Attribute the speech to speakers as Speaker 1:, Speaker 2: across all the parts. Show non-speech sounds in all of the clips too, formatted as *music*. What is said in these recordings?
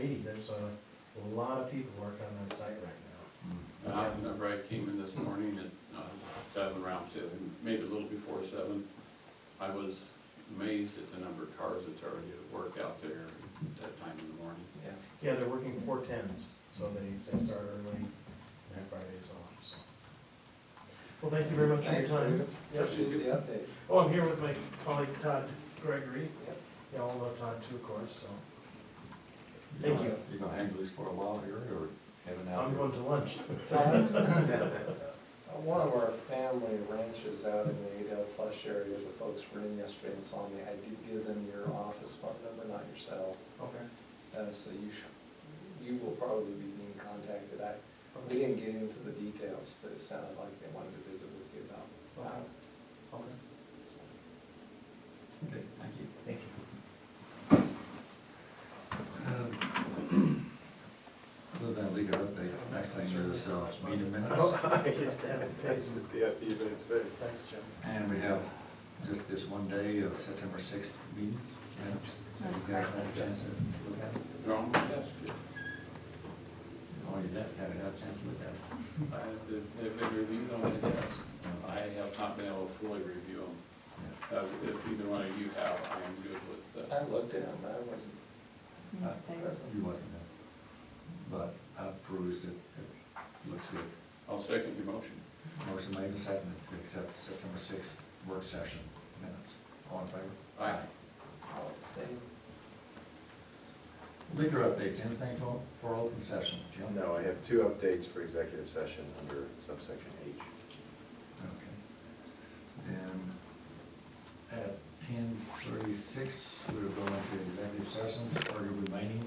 Speaker 1: there's a lot of people working on that site right now.
Speaker 2: Uh, Whenever I came in this morning at uh, seven, around seven, maybe a little before seven, I was amazed at the number of cars that's already at work out there at that time in the morning.
Speaker 1: Yeah, they're working four tens, so they, they start early, and Friday is off, so. Well, thank you very much for your
Speaker 3: Thanks,
Speaker 1: time.
Speaker 3: David. Appreciate the update.
Speaker 1: Oh, I'm here with my colleague Todd Gregory.
Speaker 3: Yep.
Speaker 1: You all know Todd too, of course, so. Thank you.
Speaker 4: You gonna hang loose for a while here, or heading out?
Speaker 1: I'm going to lunch.
Speaker 3: Todd, uh, *laughs* one of our family ranches out in the Adel Flush area, the folks were in yesterday and saw me, I did give them your office phone number, not your cell.
Speaker 1: Okay.
Speaker 3: Uh, so you should, you will probably be being contacted. I, we didn't get into the details, but it sounded like they wanted to visit with you about that.
Speaker 1: Okay.
Speaker 4: Okay, thank you.
Speaker 1: Thank you.
Speaker 4: Other than leader updates, next thing is uh, meeting minutes,
Speaker 1: *laughs* I just have a face.
Speaker 5: Yeah, see you face to face.
Speaker 1: Thanks, Jim.
Speaker 4: and we have just this one day of September sixth meetings, minutes. So you guys had a chance to look at it?
Speaker 2: Wrong, that's good.
Speaker 4: Oh, you did, haven't had a chance to look at it?
Speaker 2: I have the- They've been reviewed on my desk. I have not been able to fully review them. Uh, If either one of you have, I am good with uh, that.
Speaker 3: I looked at them, I wasn't,
Speaker 4: Uh, You wasn't there, but I perused it, it looks good.
Speaker 2: I'll second your motion.
Speaker 4: Motion made and seconded to accept September sixth work session minutes. All in favor?
Speaker 2: Aye.
Speaker 3: I'll abstain.
Speaker 4: Leader updates, anything for, for open session, Jim?
Speaker 5: No, I have two updates for executive session under subsection H.
Speaker 4: Okay. Then at ten thirty-six, we're going to executive session, or remaining.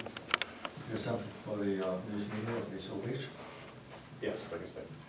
Speaker 4: Is there something for the uh, news media? Okay, so we,
Speaker 5: Yes, like I said.